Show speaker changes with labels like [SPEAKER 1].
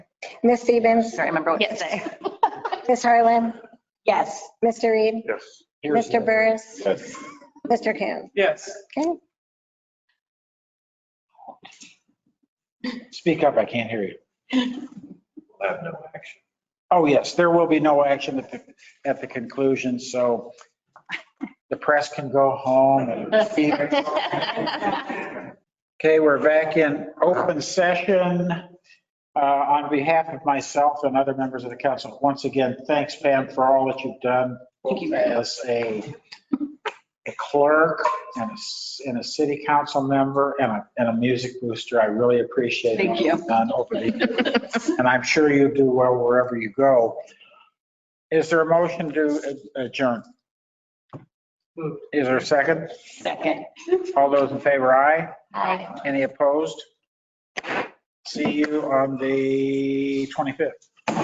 [SPEAKER 1] Ms. Stevens,
[SPEAKER 2] Sorry, I remember what to
[SPEAKER 3] Yes.
[SPEAKER 2] say.
[SPEAKER 1] Ms. Harlan,
[SPEAKER 3] Yes.
[SPEAKER 1] Mr. Reed,
[SPEAKER 4] Yes.
[SPEAKER 1] Mr. Burris,
[SPEAKER 4] Yes.
[SPEAKER 1] Mr. Coon.
[SPEAKER 5] Yes.
[SPEAKER 1] Okay.
[SPEAKER 6] Speak up, I can't hear you.
[SPEAKER 5] We'll have no action.
[SPEAKER 6] Oh, yes, there will be no action at the, at the conclusion, so the press can go home. and- Okay, we're back in open session. Uh, On behalf of myself and other members of the council, once again, thanks Pam for all that you've done.
[SPEAKER 2] Thank you.
[SPEAKER 6] As a a clerk and a, s- and a city council member and a, and a music booster. I really appreciate it.
[SPEAKER 2] Thank you.
[SPEAKER 6] Done over the and I'm sure you do well wherever you go. Is there a motion to adjourn? Is there a second?
[SPEAKER 2] Second.
[SPEAKER 6] All those in favor, aye?
[SPEAKER 3] Aye.
[SPEAKER 6] Any opposed? See you on the 25th.